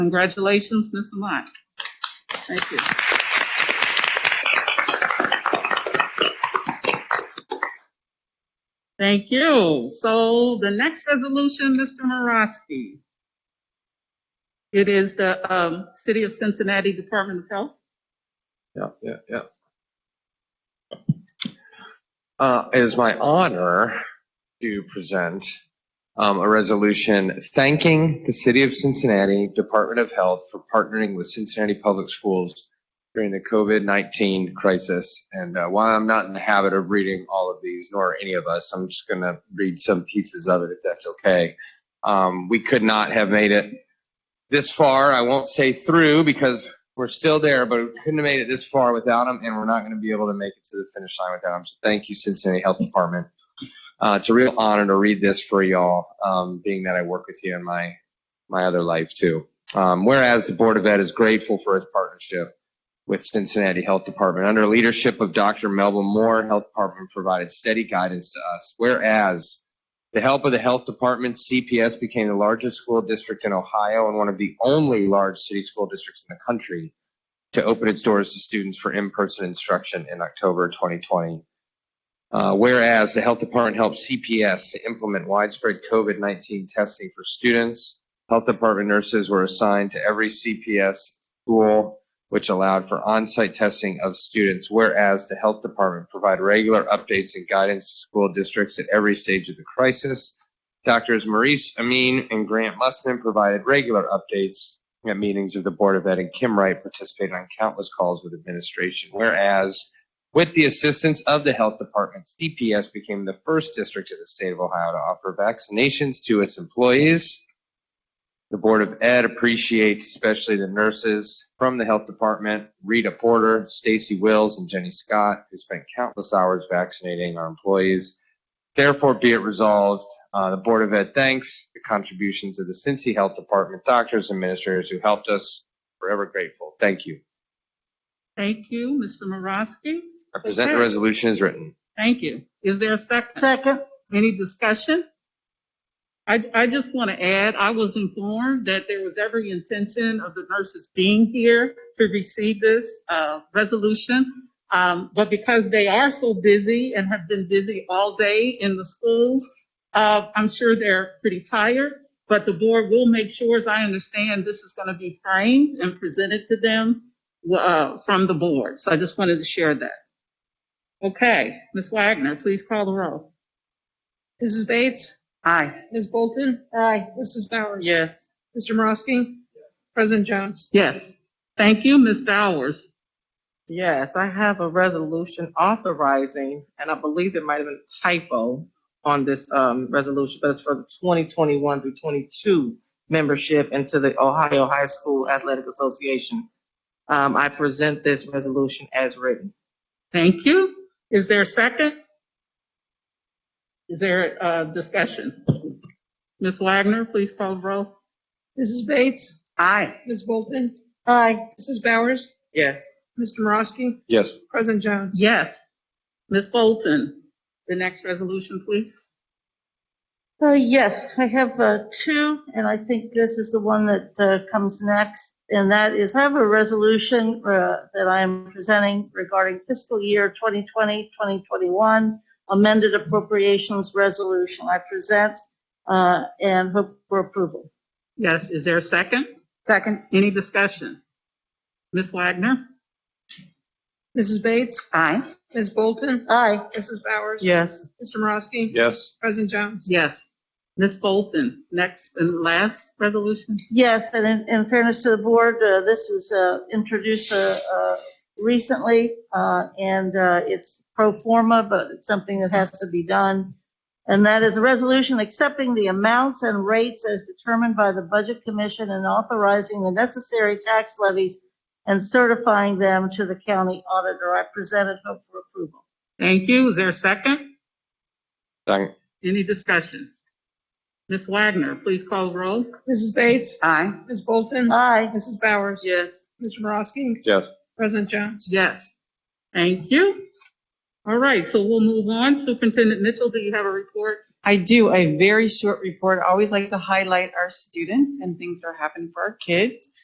Congratulations, Ms. Amat. Thank you. Thank you. So the next resolution, Mr. Morosky. It is the um, City of Cincinnati Department of Health. Yeah, yeah, yeah. Uh, it is my honor to present um, a resolution thanking the City of Cincinnati Department of Health for partnering with Cincinnati Public Schools during the COVID 19 crisis. And uh, while I'm not in the habit of reading all of these, nor any of us, I'm just going to read some pieces of it if that's okay. Um, we could not have made it this far. I won't say through because we're still there, but we couldn't have made it this far without them, and we're not going to be able to make it to the finish line without them. So thank you, Cincinnati Health Department. Uh, it's a real honor to read this for y'all, um, being that I work with you in my my other life too. Um, whereas the Board of Ed is grateful for its partnership with Cincinnati Health Department under leadership of Dr. Melvin Moore, Health Department provided steady guidance to us. Whereas the help of the health department, CPS became the largest school district in Ohio and one of the only large city school districts in the country to open its doors to students for in-person instruction in October 2020. Uh, whereas the health department helped CPS to implement widespread COVID-19 testing for students, health department nurses were assigned to every CPS school, which allowed for on-site testing of students. Whereas the health department provided regular updates and guidance to school districts at every stage of the crisis. Doctors Maurice Amin and Grant Musman provided regular updates at meetings of the Board of Ed, and Kim Wright participated on countless calls with administration. Whereas, with the assistance of the health department, CPS became the first district in the state of Ohio to offer vaccinations to its employees. The Board of Ed appreciates especially the nurses from the health department, Rita Porter, Stacy Wills, and Jenny Scott, who spent countless hours vaccinating our employees. Therefore, be it resolved, uh, the Board of Ed thanks the contributions of the Cincy Health Department doctors and administrators who helped us. Forever grateful. Thank you. Thank you, Mr. Morosky. I present the Okay. resolution as written. Thank you. Is there a second? Second. Any discussion? I, I just want to add, I was informed that there was every intention of the nurses being here to receive this uh, resolution. Um, But because they are so busy and have been busy all day in the schools, uh, I'm sure they're pretty tired. But the board will make sure, as I understand, this is going to be framed and presented to them uh, from the board. So I just wanted to share that. Okay, Ms. Wagner, please call the roll. Mrs. Bates? Aye. Ms. Bolton? Aye. Mrs. Bowers? Yes. Mr. Morosky? President Jones? Yes. Thank you, Ms. Dowers. Yes, I have a resolution authorizing, and I believe there might have been a typo on this um, resolution, but it's for the 2021 through 22 membership into the Ohio High School Athletic Association. Um, I present this resolution as written. Thank you. Is there a second? Is there a discussion? Ms. Wagner, please call the roll. Mrs. Bates? Aye. Ms. Bolton? Aye. Mrs. Bowers? Yes. Mr. Morosky? Yes. President Jones? Yes. Ms. Bolton, the next resolution, please. Uh, yes, I have, uh, two, and I think this is the one that, uh, comes next. And that is, I have a resolution, uh, that I am presenting regarding fiscal year 2020, 2021, amended appropriations resolution. I present, uh, and hope for approval. Yes, is there a second? Second. Any discussion? Ms. Wagner? Mrs. Bates? Aye. Ms. Bolton? Aye. Mrs. Bowers? Yes. Mr. Morosky? Yes. President Jones? Yes. Ms. Bolton, next and last resolution? Yes, and in, in fairness to the board, uh, this was, uh, introduced, uh, uh, recently, uh, and, uh, it's pro forma, but it's something that has to be done. And that is a resolution accepting the amounts and rates as determined by the Budget Commission and authorizing the necessary tax levies and certifying them to the county auditor. I presented hope for approval. Thank you. Is there a second? Second. Any discussion? Ms. Wagner, please call the roll. Mrs. Bates? Aye. Ms. Bolton? Aye. Mrs. Bowers? Yes. Mr. Morosky? Yes. President Jones? Yes. Thank you. All right, so we'll move on. Superintendent Mitchell, do you have a report? I do a very short report. I always like to highlight our students and things that are happening for our kids.